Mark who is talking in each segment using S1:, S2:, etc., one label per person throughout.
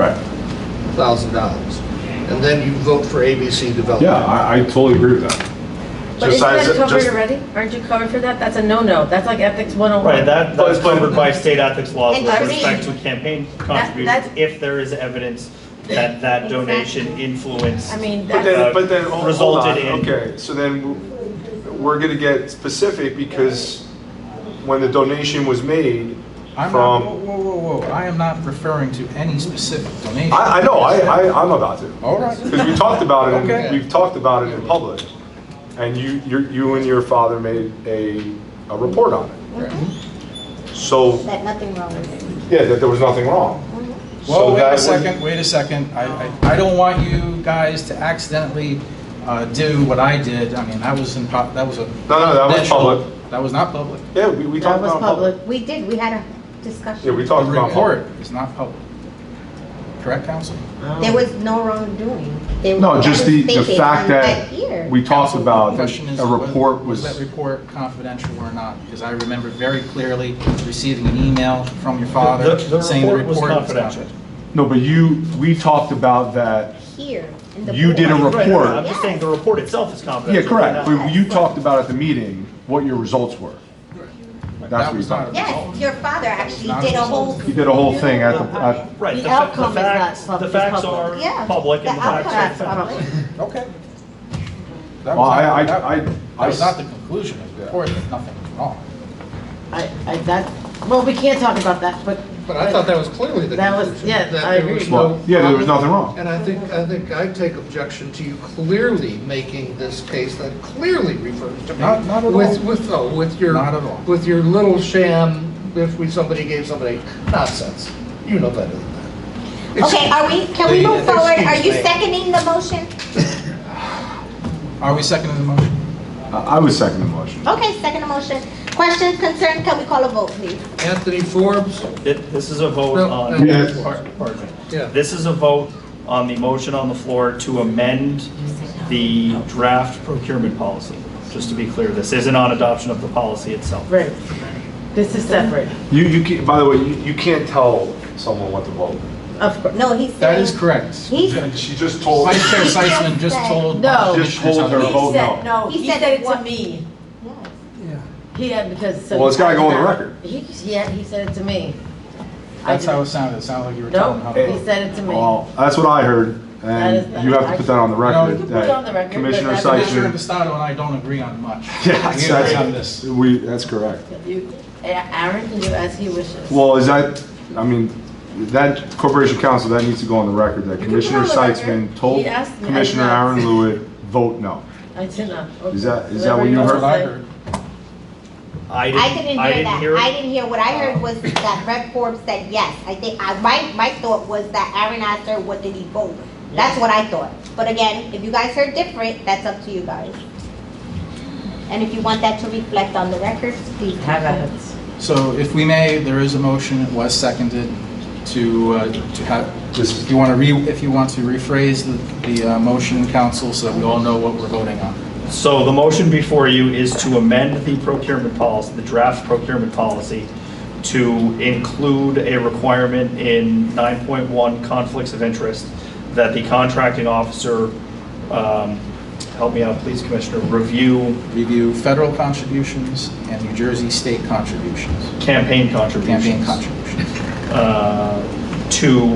S1: Right.
S2: thousand dollars. And then you vote for ABC
S1: Yeah,
S2: Development.
S1: I, I totally agree with that.
S3: But
S4: Just
S3: isn't
S4: as
S3: that
S4: it-
S3: covered
S4: just-
S3: already? Aren't you covered for that? That's a no-no. That's like ethics 101.
S5: Right, that, that's covered by state ethics laws
S3: And
S5: with
S3: I mean-
S5: respect to campaign contributions,
S3: that's-
S5: if there is evidence that that donation influenced.
S3: I mean,
S4: But then,
S3: that's,
S4: but then, hold- hold on,
S5: resulted in-
S4: okay, so then w- we're gonna get specific because when the donation was made
S6: I'm not, whoa,
S4: from,
S6: whoa, whoa, whoa, I am not referring to any specific donation.
S4: I, I know, I, I, I'm about to.
S1: Oh.
S6: All right.
S4: Because we talked about it,
S6: Okay.
S4: in- we've talked about it in public, and you, you- you and your father made a, a report on it. So,
S7: that nothing wrong with it.
S4: yeah, that there was nothing wrong. So
S6: Well, wait
S4: that
S6: a
S4: was-
S6: second, wait a second. I, I I don't want you guys to accidentally uh, do what I did. I mean, that was in, pub- that was
S4: No,
S6: a.
S4: no, that was
S6: confidential-
S4: public.
S6: That was not public.
S4: Yeah, we, we talked
S3: that was
S4: about it in public.
S3: public.
S7: We did, we had a discussion.
S4: Yeah, we
S6: The
S4: talked about it in public.
S6: report is not public. Correct, counsel?
S7: There was no wrongdoing. There
S1: No,
S7: was-
S1: just
S7: that
S1: the,
S7: was
S1: the
S7: stated
S1: fact
S7: on
S1: that
S7: my ear.
S1: we talked about that
S6: Question is,
S1: a report
S6: that
S1: was,
S6: report confidential or not? Because I remember very clearly receiving an email from your
S5: The,
S6: father
S5: the
S6: saying the
S5: report
S6: report
S5: was
S6: was
S5: confidential.
S1: no, but you, we talked about that,
S7: Here. in the
S1: You did a
S7: board.
S1: report.
S5: Right, no, no, I'm just
S7: Yes.
S5: saying the report itself is confidential.
S1: yeah, correct.
S5: Right now.
S1: But you talked about at the meeting what your results were. That's
S6: That
S1: what you
S6: was not
S1: thought.
S6: a
S7: Yes, your father actually
S6: Not
S7: did a whole.
S1: You did a whole thing at the, at,
S5: Right,
S8: The
S5: the fa-
S8: outcome is
S5: the
S8: not
S5: facts,
S8: pub-
S5: the
S8: is
S5: facts are
S8: public.
S7: Yeah,
S5: public and
S7: the
S5: the facts are
S7: outcome.
S5: facts.
S6: Okay. That
S1: well,
S6: was
S1: I,
S6: not-
S1: I,
S6: that-
S1: I,
S6: That was not the
S1: I,
S6: conclusion of the report, that nothing was wrong.
S8: I, I, that, well, we can't talk about that, but.
S2: But I thought that was clearly the
S8: That was-
S2: conclusion.
S8: yeah,
S2: that
S8: I
S2: there
S8: agree.
S2: was no-
S1: well, yeah, there was nothing wrong.
S2: And I think, I think I take objection to you clearly making this case that clearly refers to me.
S6: Not- not at
S2: With,
S6: all.
S2: with, oh, with your.
S6: Not at all.
S2: With your little sham, if we, somebody gave somebody nonsense. You know better than that. It's-
S7: Okay, are we, can we
S2: Excuse-
S7: move forward? Are you
S2: excuse me.
S7: seconding the motion?
S6: Are we seconding the motion?
S1: I I was second the motion.
S7: Okay, second the motion. Questions, concern, can we call a vote, please?
S2: Anthony Forbes,
S5: It- This is a vote
S2: No,
S5: on,
S1: no.
S5: par- uh, pardon me.
S2: Yeah.
S5: This is a vote on the motion on the floor to amend the draft procurement policy. Just to be clear, this isn't on adoption of the policy itself.
S8: Right. This is separate,
S4: You, you, can't- by the way, you, you can't tell someone what to vote.
S8: of course.
S7: No, he's saying.
S6: That is correct.
S7: He's,
S4: She just told.
S6: Vice Chair Seisman just told.
S8: No.
S1: Just hold her
S6: Commissioners-
S1: vote
S3: said,
S1: no.
S3: no,
S7: He
S3: he
S7: said
S3: said it to
S7: what-
S3: me.
S7: yes.
S3: He had, because.
S1: Well, it's gotta go on the record.
S3: He, yeah, he said it to me. I
S6: That's how it
S3: didn't-
S6: sounded, it sounded like you were
S3: No,
S6: telling how.
S3: he said it to me.
S1: Well, that's what I heard,
S3: That is not-
S1: and you have to put that on the record.
S6: You
S3: can put it on the
S1: that
S3: record, but
S1: Commissioner
S3: that's-
S6: Commissioner
S1: Seisman.
S6: Pistado and I don't agree on much.
S1: Yeah,
S6: We
S1: that's-
S6: agree on this.
S1: that's, we, that's correct.
S3: You- Aaron can do as he wishes.
S1: Well, is that, I mean, that Corporation Council, that needs to go on the record, that
S3: You can put it
S1: Commissioner
S3: on the record.
S1: Seitzman told
S3: He asked me, I
S1: Commissioner
S3: did not.
S1: Aaron Lewitt, vote no.
S3: I did not.
S1: Is that- is that
S3: Whatever
S1: what you
S3: wants
S6: That's
S3: to
S6: what I
S3: say.
S6: heard.
S5: I
S7: I didn't
S5: didn't, I
S7: hear
S5: didn't
S7: that.
S5: hear
S7: I
S5: it.
S7: didn't hear, what I heard was that Brett Forbes said yes. I think, I, my, my thought was that Aaron asked her, what did he vote? That's what I thought. But again, if you guys heard different, that's up to you guys. And if you want that to reflect on the record, please.
S3: Have at it.
S6: So if we may, there is a motion, it was seconded to, uh, to have, if you want to re, if you want to rephrase the, the uh, motion, council, so that we all know what we're voting on.
S5: So the motion before you is to amend the procurement policy, the draft procurement policy, to include a requirement in 9.1 conflicts of interest that the contracting officer, um, help me out, please, Commissioner, review
S6: Review federal contributions and New Jersey state contributions,
S5: campaign contributions.
S6: campaign contributions.
S5: uh, to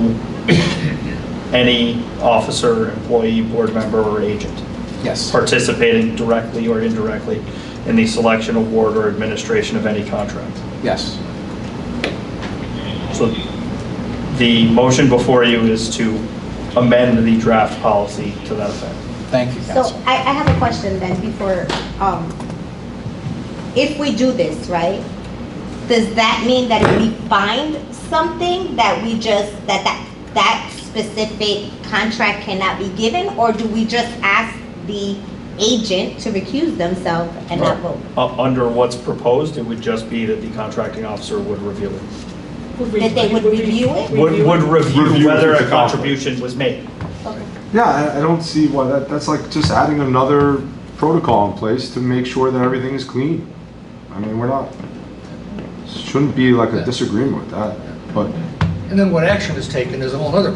S5: any officer, employee, board member, or agent
S6: Yes.
S5: participating directly or indirectly in the selection, award, or administration of any contract.
S6: Yes.
S5: So the motion before you is to amend the draft policy to that effect.
S6: Thank you,
S7: So
S6: council.
S7: I, I have a question then before, um, if we do this, right? Does that mean that if we find something that we just, that that, that specific contract cannot be given? Or do we just ask the agent to recuse themselves and not vote?
S5: Uh, Under what's proposed, it would just be that the contracting officer would review it.
S7: That they would review it?
S5: Would would review
S1: Review
S5: whether
S1: if it's
S5: a
S1: a conflict.
S5: contribution was made.
S1: Yeah, I, I don't see why, that, that's like just adding another protocol in place to make sure that everything is clean. I mean, we're not, shouldn't be like a disagreement with that, but
S2: and then what action is taken is a whole other